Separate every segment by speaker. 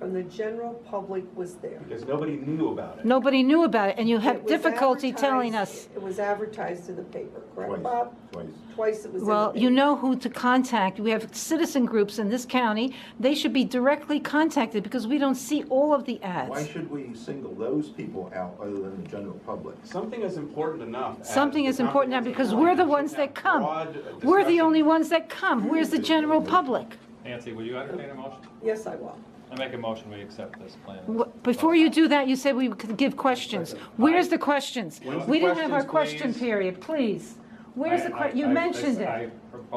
Speaker 1: and the general public was there.
Speaker 2: because nobody knew about it.
Speaker 3: Nobody knew about it, and you
Speaker 1: It
Speaker 3: have
Speaker 1: was
Speaker 3: difficulty telling
Speaker 1: advertised-
Speaker 3: us.
Speaker 1: It was advertised in the paper, correct,
Speaker 4: Twice,
Speaker 1: Bob?
Speaker 4: twice.
Speaker 1: Twice it was in the
Speaker 3: Well, you
Speaker 1: paper.
Speaker 3: know who to contact. We have citizen groups in this county. They should be directly contacted because we don't see all of the
Speaker 4: Why
Speaker 3: ads.
Speaker 4: should we single those people out other than the general public?
Speaker 2: Something is important enough. as
Speaker 3: Something
Speaker 2: the
Speaker 3: is important now because
Speaker 2: comprehensive
Speaker 3: we're the
Speaker 2: plan
Speaker 3: ones
Speaker 2: should have
Speaker 3: that come.
Speaker 2: broad
Speaker 3: We're the
Speaker 2: discussion.
Speaker 3: only ones that come. Where's the general public?
Speaker 5: Nancy, will you entertain a motion?
Speaker 1: Yes, I will.
Speaker 5: I make a motion, we accept this plan.
Speaker 3: Wh- Before you do that, you said we could give questions. Where's the questions?
Speaker 2: When's the
Speaker 3: We didn't have our
Speaker 2: questions,
Speaker 3: question
Speaker 2: please?
Speaker 3: period, please. Where's the que, you mentioned it.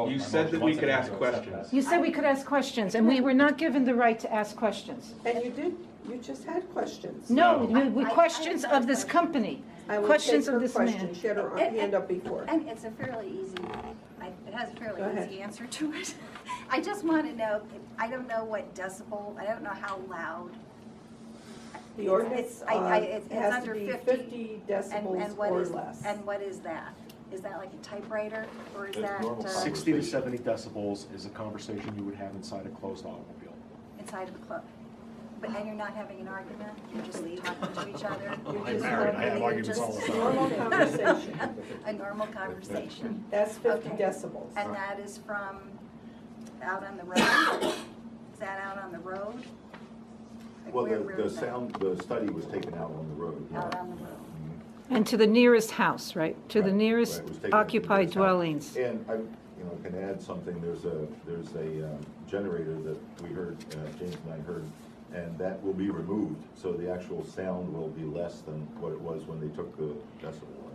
Speaker 2: You said that we could ask questions.
Speaker 3: You said we could ask questions, and we were not given the right to ask questions.
Speaker 1: And you did, you just had questions.
Speaker 3: No,
Speaker 2: No.
Speaker 3: we- we- questions of this company,
Speaker 1: I will
Speaker 3: questions
Speaker 1: take
Speaker 3: of
Speaker 1: her
Speaker 3: this
Speaker 1: question.
Speaker 3: man.
Speaker 1: She had her
Speaker 6: And-
Speaker 1: hand up before.
Speaker 6: And it's a fairly easy, I- it has a fairly
Speaker 1: Go ahead.
Speaker 6: easy answer to it. I just want to know, I don't know what decibel, I don't know how loud.
Speaker 1: The ordinance
Speaker 6: It's- I- I-
Speaker 1: uh,
Speaker 6: it's- it's
Speaker 1: has to
Speaker 6: under
Speaker 1: be
Speaker 6: 50,
Speaker 1: 50
Speaker 6: and-
Speaker 1: decibels
Speaker 6: and what
Speaker 1: or
Speaker 6: is-
Speaker 1: less.
Speaker 6: And what is that? Is that like a typewriter or is
Speaker 4: That's
Speaker 6: that
Speaker 4: normal.
Speaker 6: uh,
Speaker 7: 60 to 70 decibels is a conversation you would have inside a closed automobile.
Speaker 6: inside of a club? But, and you're not having an argument, you're just talking to each other?
Speaker 1: I'm
Speaker 6: You're just-
Speaker 1: married, I have
Speaker 6: you're
Speaker 7: arguments
Speaker 6: just-
Speaker 7: all the time.
Speaker 1: Normal conversation.
Speaker 6: A normal conversation.
Speaker 1: That's 50
Speaker 6: Okay.
Speaker 1: decibels.
Speaker 6: And that is from out on the road? Is that out on the road? Like,
Speaker 4: Well,
Speaker 6: where-
Speaker 4: the,
Speaker 6: where
Speaker 4: the
Speaker 6: is that?
Speaker 4: sound, the study was taken out on the road. yeah.
Speaker 6: Out on the road.
Speaker 3: And to the nearest house, right? To the
Speaker 4: Right,
Speaker 3: nearest
Speaker 4: right, it was taken
Speaker 3: occupied
Speaker 4: into account.
Speaker 3: dwellings.
Speaker 4: And I, you know, can add something, there's a, there's a um, generator that we heard, uh, James and I heard, and that will be removed, so the actual sound will be less than what it was when they took the decibel level.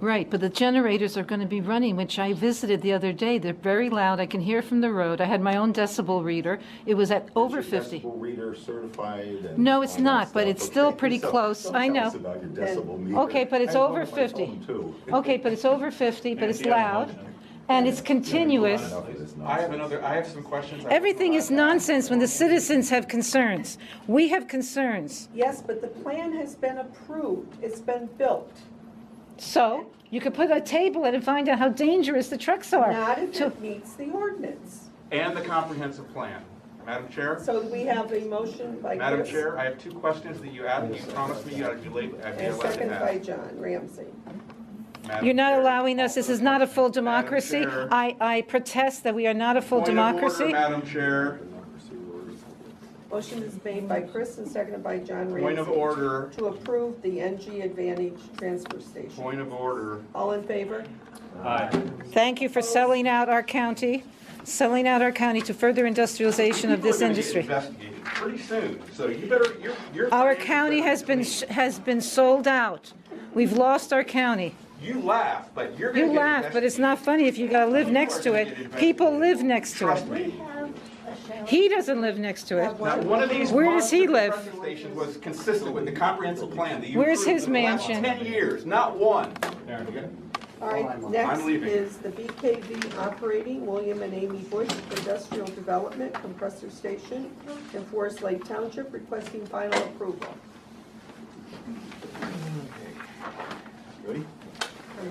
Speaker 3: Right, but the generators are going to be running, which I visited the other day. They're very loud. I can hear from the road. I had my own decibel reader. It was at over
Speaker 4: Is your
Speaker 3: 50.
Speaker 4: Decibel reader certified and.
Speaker 3: No, it's
Speaker 4: all that
Speaker 3: not, but
Speaker 4: stuff?
Speaker 3: it's still
Speaker 4: Okay,
Speaker 3: pretty
Speaker 4: so-
Speaker 3: close.
Speaker 4: don't
Speaker 3: I
Speaker 4: tell us
Speaker 3: know.
Speaker 4: about your decibel meter.
Speaker 3: Okay, but it's
Speaker 4: I have
Speaker 3: over
Speaker 4: one on my
Speaker 3: 50.
Speaker 4: phone, too.
Speaker 3: Okay, but it's over 50, but it's
Speaker 5: Nancy, I have a
Speaker 3: loud,
Speaker 5: motion.
Speaker 3: and it's continuous.
Speaker 4: Enough of
Speaker 2: I
Speaker 4: this
Speaker 2: have
Speaker 4: nonsense.
Speaker 2: another, I have some questions. I will
Speaker 3: Everything is
Speaker 2: provide.
Speaker 3: nonsense when the citizens have concerns. We have concerns.
Speaker 1: Yes, but the plan has been approved. It's been built.
Speaker 3: So you could put a table in and find out how dangerous the trucks are.
Speaker 1: Not if
Speaker 3: To-
Speaker 1: it meets the ordinance.
Speaker 2: And the comprehensive plan. Madam Chair?
Speaker 1: So we have a motion by
Speaker 2: Madam
Speaker 1: Chris
Speaker 2: Chair, I have two questions that you asked, you promised me I'd be late, I'd be
Speaker 1: and
Speaker 2: allowed
Speaker 1: second
Speaker 2: to
Speaker 1: by
Speaker 2: ask.
Speaker 1: John Ramsey.
Speaker 2: Madam
Speaker 3: You're not
Speaker 2: Chair.
Speaker 3: allowing us, this is not a full
Speaker 2: Madam
Speaker 3: democracy.
Speaker 2: Chair.
Speaker 3: I, I protest that we are not a full
Speaker 2: Point of order,
Speaker 3: democracy.
Speaker 2: Madam Chair,
Speaker 1: Motion is made by Chris and seconded by John Ramsey.
Speaker 2: point of order,
Speaker 1: To approve the NG Advantage Transfer Station.
Speaker 2: point of order.
Speaker 1: All in favor?
Speaker 5: Aye.
Speaker 3: Thank you for selling out our county, selling out our county to further industrialization of this
Speaker 2: People are gonna get
Speaker 3: industry.
Speaker 2: Investigated pretty soon, so you better, you're, you're.
Speaker 3: Our county has been, sh- has been sold out. We've lost our county.
Speaker 2: You laugh, but you're gonna
Speaker 3: You
Speaker 2: get.
Speaker 3: laugh, but it's not funny if you gotta live next to it. People live next to
Speaker 2: Trust
Speaker 3: it.
Speaker 2: me.
Speaker 3: He doesn't live next to it.
Speaker 2: Not one of these.
Speaker 3: Where does he
Speaker 2: monster
Speaker 3: live?
Speaker 2: compressor Stations was consistent with the comprehensive plan that you.
Speaker 3: Where's
Speaker 2: approved
Speaker 3: his
Speaker 2: in the last
Speaker 3: mansion?
Speaker 2: Ten years, not one.
Speaker 1: All right, next
Speaker 2: I'm leaving.
Speaker 1: is the BKV Operating, William and Amy Bush Industrial Development Compressor Station in Forest Lake Township requesting final approval.
Speaker 4: Ready?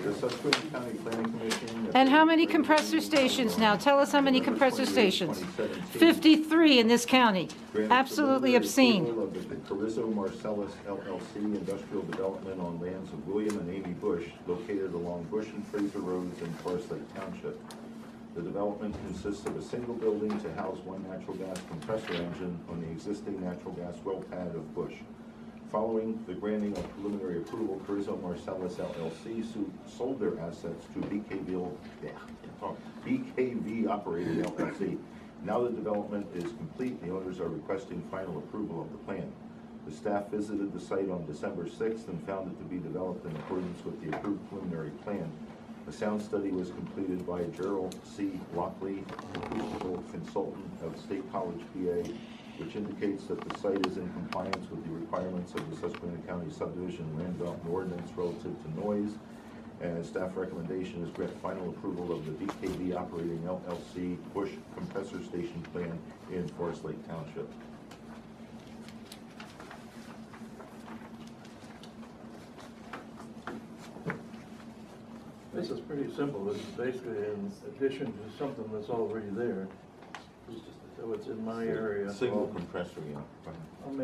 Speaker 4: The Susquehanna County Planning Commission.
Speaker 3: And how many compressor stations now? Tell us how many compressor stations. 53 in this county.
Speaker 4: Granted
Speaker 3: Absolutely
Speaker 4: preliminary
Speaker 3: obscene.
Speaker 4: approval of the Carrizo Marcellus LLC industrial development on lands of William and Amy Bush located along Bush and Fraser Roads in Forest Lake Township. The development consists of a single building to house one natural gas compressor engine on the existing natural gas well pad of Bush. Following the granting of preliminary approval, Carrizo Marcellus LLC su- sold their assets to BKV, yeah, oh, can't talk, BKV Operating LLC. Now the development is complete, the owners are requesting final approval of the plan. The staff visited the site on December 6th and found it to be developed in accordance with the approved preliminary plan. A sound study was completed by Gerald C. Lockley, acoustical consultant of State College, PA, which indicates that the site is in compliance with the requirements of the Susquehanna County subdivision land development ordinance relative to noise. And staff recommendation is grant final approval of the BKV operating LLC Bush compressor station plan in Forest Lake Township.
Speaker 8: This is pretty simple, it's basically in addition to something that's already there. So it's in my area.
Speaker 4: Single compressor, yeah.